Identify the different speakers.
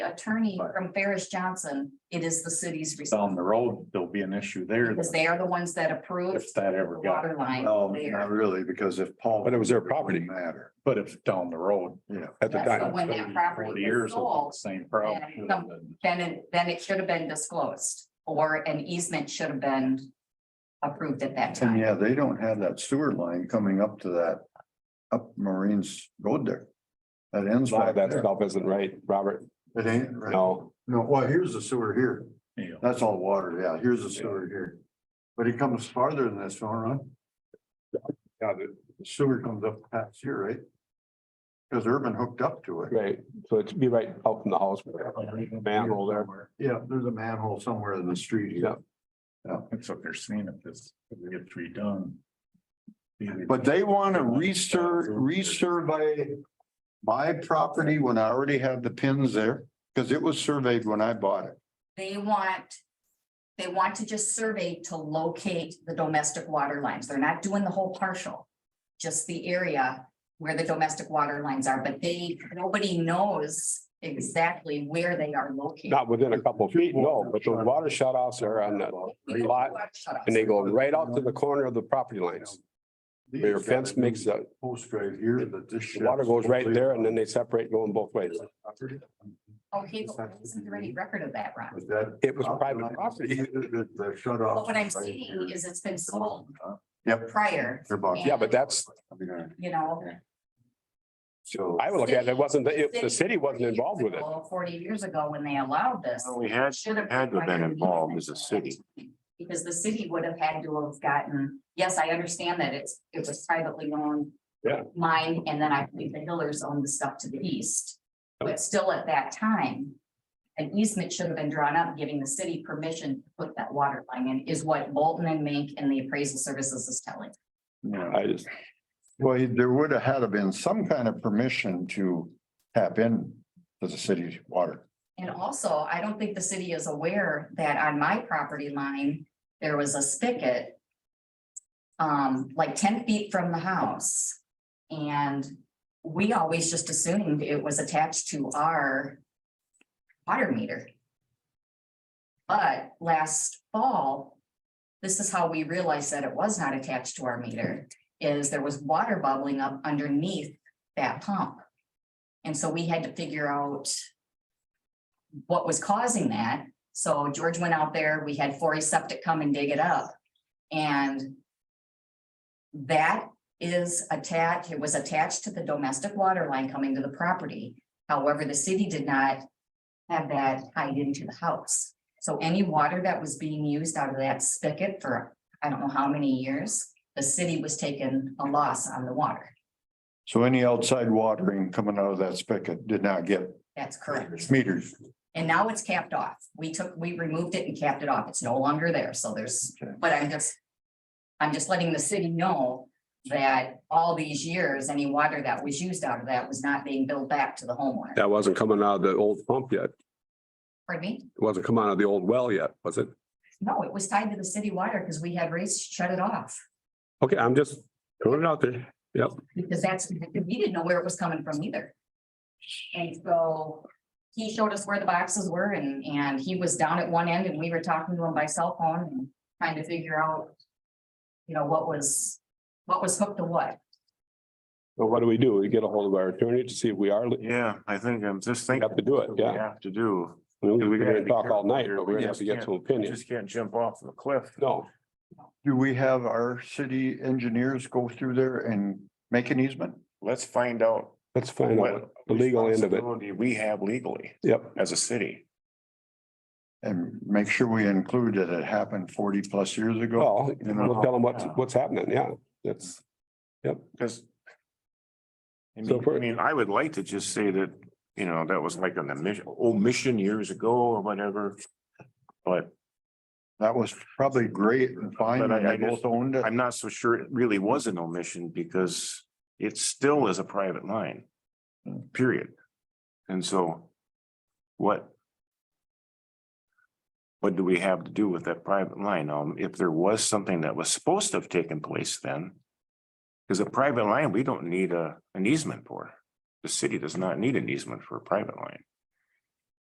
Speaker 1: attorney from Ferris Johnson, it is the city's
Speaker 2: down
Speaker 1: responsibility.
Speaker 2: the road, there'll be an issue there
Speaker 1: Because they are the ones that approved
Speaker 2: if that
Speaker 1: the
Speaker 2: ever got,
Speaker 1: water line
Speaker 3: No,
Speaker 1: there.
Speaker 3: Um, not really, because if Paul.
Speaker 4: But it was their property.
Speaker 3: Matter,
Speaker 2: but if down the road.
Speaker 3: yeah.
Speaker 4: at the
Speaker 1: Yeah, so
Speaker 4: time.
Speaker 1: When that
Speaker 2: 30,
Speaker 1: property
Speaker 2: 40
Speaker 1: was
Speaker 2: years, it'll be the
Speaker 1: sold,
Speaker 2: Same problem.
Speaker 1: then some- Then, it- then it should have been disclosed, or an easement should have been approved at that
Speaker 3: And
Speaker 1: time.
Speaker 3: yeah, they don't have that sewer line coming up to that, up Marines Road there. That ends
Speaker 4: A lot
Speaker 3: back
Speaker 4: of that
Speaker 3: there.
Speaker 4: stuff isn't right, Robert.
Speaker 3: It ain't, right?
Speaker 4: No,
Speaker 3: No, well, here's the sewer here.
Speaker 2: Yeah.
Speaker 3: That's all water, yeah, here's the sewer here. But it comes farther than this, don't run.
Speaker 4: Yeah, the-
Speaker 3: The sewer comes up past here, right? Because Urban hooked up to it.
Speaker 4: right. So it'd be right out from the house. Manhole there.
Speaker 3: Yeah, there's a manhole somewhere in the street
Speaker 4: Yeah.
Speaker 3: here.
Speaker 2: That's what they're seeing if this gets redone.
Speaker 3: But they want to reser, resurvey my property when I already have the pins there, because it was surveyed when I bought it.
Speaker 1: They want, they want to just survey to locate the domestic water lines. They're not doing the whole partial. Just the area where the domestic water lines are, but they, nobody knows exactly where they are located.
Speaker 4: Not within a couple of feet, no, but those water shut offs are on the lot
Speaker 1: Shut up.
Speaker 4: and they go right out to the corner of the property lines. Where Your fence makes a,
Speaker 3: Post right here that this.
Speaker 4: the water goes right there and then they separate going both ways.
Speaker 1: Okay, but why isn't there any record of that, Ron?
Speaker 3: But that.
Speaker 4: It was private property.
Speaker 3: The the shut off.
Speaker 1: But what I'm seeing is it's been sold
Speaker 3: Yep.
Speaker 1: prior,
Speaker 3: they're about-
Speaker 4: Yeah, but that's,
Speaker 1: you know.
Speaker 3: uh, So.
Speaker 4: I would look at it, it wasn't, if the city wasn't involved with it.
Speaker 1: Forty years ago when they allowed this.
Speaker 5: Well, We had,
Speaker 1: should have
Speaker 5: Oh, had to have been
Speaker 1: required
Speaker 5: involved as
Speaker 1: easement
Speaker 5: a city.
Speaker 1: Because the city would have had to have gotten, yes, I understand that it's, it was privately owned.
Speaker 4: Yeah.
Speaker 1: Mine, and then I believe the Hillers owned the stuff to the east. But still at that time, an easement should have been drawn up, giving the city permission to put that water line in, is what Bolton and Mink and the appraisal services is telling.
Speaker 3: Yeah.
Speaker 4: I just,
Speaker 3: Well, there would have had to been some kind of permission to tap in to the city's water.
Speaker 1: And also, I don't think the city is aware that on my property line, there was a spigot. Um, like ten feet from the house. And we always just assumed it was attached to our. Water meter. But last fall. This is how we realized that it was not attached to our meter, is there was water bubbling up underneath that pump. And so we had to figure out what was causing that. So George went out there, we had Forry Septic come and dig it up. And that is attached, it was attached to the domestic water line coming to the property. However, the city did not have that tied into the house. So any water that was being used out of that spigot for, I don't know how many years, the city was taking a loss on the water.
Speaker 3: So any outside watering coming out of that spigot did not get
Speaker 1: That's correct.
Speaker 3: meters.
Speaker 1: And now it's capped off. We took, we removed it and capped it off. It's no longer there, so there's,
Speaker 3: Okay.
Speaker 1: but I'm just. I'm just letting the city know that all these years, any water that was used out of that was not being billed back to the homeowner.
Speaker 4: that wasn't coming out of the old pump yet. It
Speaker 1: Pardon me?
Speaker 4: wasn't coming out of the old well yet, was it?
Speaker 1: No, it was tied to the city water because we had race shut it off.
Speaker 4: Okay, I'm just throwing it out there.
Speaker 1: Because that's, we didn't know where it was coming from either. And so he showed us where the boxes were and, and he was down at one end and we were talking to him by cell phone and trying to figure out. You know, what was, what was hooked to what.
Speaker 4: Well, what do we do? We get a hold of our attorney to see if we are, we
Speaker 5: Yeah, I think I'm just thinking.
Speaker 4: have to do it,
Speaker 5: what we
Speaker 4: yeah.
Speaker 5: Have to do.
Speaker 4: I mean, We
Speaker 5: We gotta
Speaker 4: can
Speaker 5: be
Speaker 4: talk
Speaker 5: careful
Speaker 4: all night,
Speaker 5: here.
Speaker 4: but we're
Speaker 5: We
Speaker 4: gonna have to
Speaker 5: just
Speaker 4: get
Speaker 5: can't-
Speaker 4: some
Speaker 5: You
Speaker 4: opinion.
Speaker 5: just can't jump off the cliff.
Speaker 4: No,
Speaker 3: Do we have our city engineers go through there and make an easement?
Speaker 5: Let's find out
Speaker 4: let's find out
Speaker 5: what.
Speaker 4: the legal end of it.
Speaker 5: responsibility We have legally
Speaker 4: Yep,
Speaker 5: as a city.
Speaker 3: And make sure we include that it happened forty plus years ago.
Speaker 4: well, we'll tell them what's, what's happening, yeah, that's,
Speaker 5: Because. I
Speaker 4: So
Speaker 5: mean,
Speaker 4: for-
Speaker 5: I mean, I would like to just say that, you know, that was like an omission, omission years ago or whatever. But
Speaker 3: That was probably great and fine.
Speaker 5: But I-
Speaker 3: and uh, They
Speaker 5: I just-
Speaker 3: both owned it.
Speaker 5: I'm not so sure it really was an omission because it still is a private line. Period. And so what? What do we have to do with that private line? Um, if there was something that was supposed to have taken place then. Because a private line, we don't need a, an easement for. The city does not need an easement for a private line.